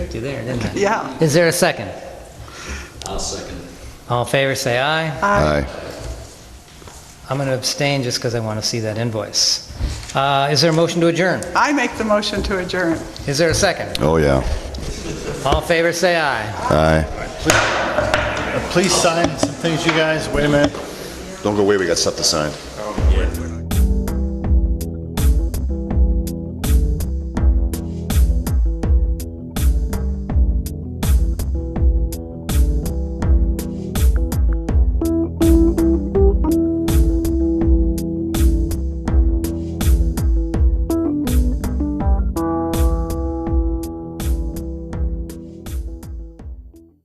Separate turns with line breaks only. tricked you there, didn't I?
Yeah.
Is there a second?
I'll second it.
All in favor, say aye.
Aye.
I'm going to abstain just because I want to see that invoice. Uh, Is there a motion to adjourn?
I make the motion to adjourn.
Is there a second?
Oh, yeah.
All in favor, say aye.
Aye.
Please sign some things, you guys. Wait a minute.
Don't go away, we got stuff to sign.